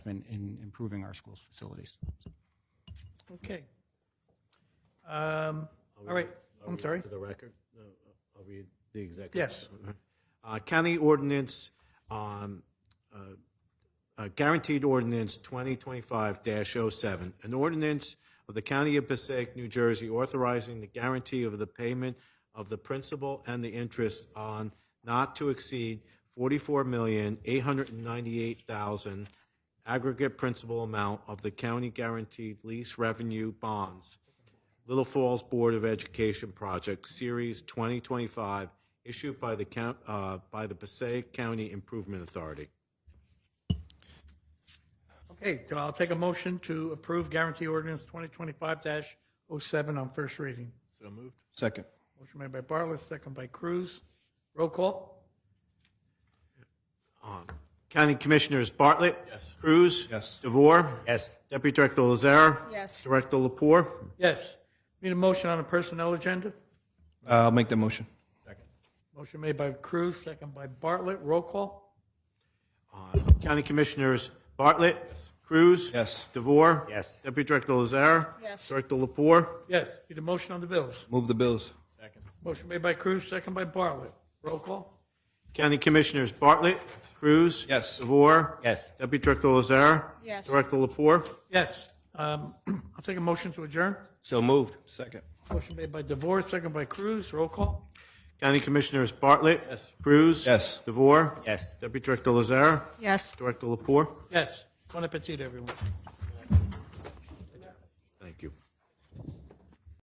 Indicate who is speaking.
Speaker 1: in, in improving our schools' facilities.
Speaker 2: Okay. Um, All right,
Speaker 3: I'll
Speaker 2: I'm
Speaker 3: read
Speaker 2: sorry.
Speaker 3: To the record, No, I'll read the executive.
Speaker 2: Yes.
Speaker 3: Uh, County ordinance, um, uh, uh, guaranteed ordinance 2025-07, an ordinance of the County of Passaic, New Jersey, authorizing the guarantee of the payment of the principal and the interest on not to exceed $44,898,000 aggregate principal amount of the county guaranteed lease revenue bonds Little Falls Board of Education Project Series 2025, issued by the count, uh, by the Passaic County Improvement Authority.
Speaker 2: Okay, so I'll take a motion to approve guarantee ordinance 2025-07 on first reading.
Speaker 1: Second.
Speaker 2: Motion made by Bartlett, second by Cruz. Roll call?
Speaker 3: County Commissioners Bartlett. Yes. Cruz.
Speaker 1: Yes.
Speaker 3: DeVore.
Speaker 4: Yes.
Speaker 3: Deputy Director Lazare.
Speaker 5: Yes.
Speaker 3: Director Lapore.
Speaker 2: Yes. Need a motion on the personnel agenda?
Speaker 4: Uh, I'll make the motion.
Speaker 2: Motion made by Cruz, second by Bartlett. Roll call?
Speaker 3: Uh, County Commissioners Bartlett. Yes. Cruz.
Speaker 4: Yes.
Speaker 3: DeVore.
Speaker 4: Yes.
Speaker 3: Deputy Director Lazare.
Speaker 5: Yes.
Speaker 3: Director Lapore.
Speaker 2: Yes. Need a motion on the bills?
Speaker 4: Move the bills.
Speaker 2: Motion made by Cruz, second by Bartlett. Roll call?
Speaker 3: County Commissioners Bartlett. Cruz.
Speaker 4: Yes.
Speaker 3: DeVore.
Speaker 4: Yes.
Speaker 3: Deputy Director Lazare.
Speaker 5: Yes.
Speaker 3: Director Lapore.
Speaker 2: Yes. Um, I'll take a motion to adjourn.
Speaker 4: So moved. Second.
Speaker 2: Motion made by DeVore, second by Cruz. Roll call?
Speaker 3: County Commissioners Bartlett. Cruz.
Speaker 4: Yes.
Speaker 3: DeVore.
Speaker 4: Yes.
Speaker 3: Deputy Director Lazare.
Speaker 5: Yes.
Speaker 3: Director Lapore.
Speaker 2: Yes. Bon appetit, everyone.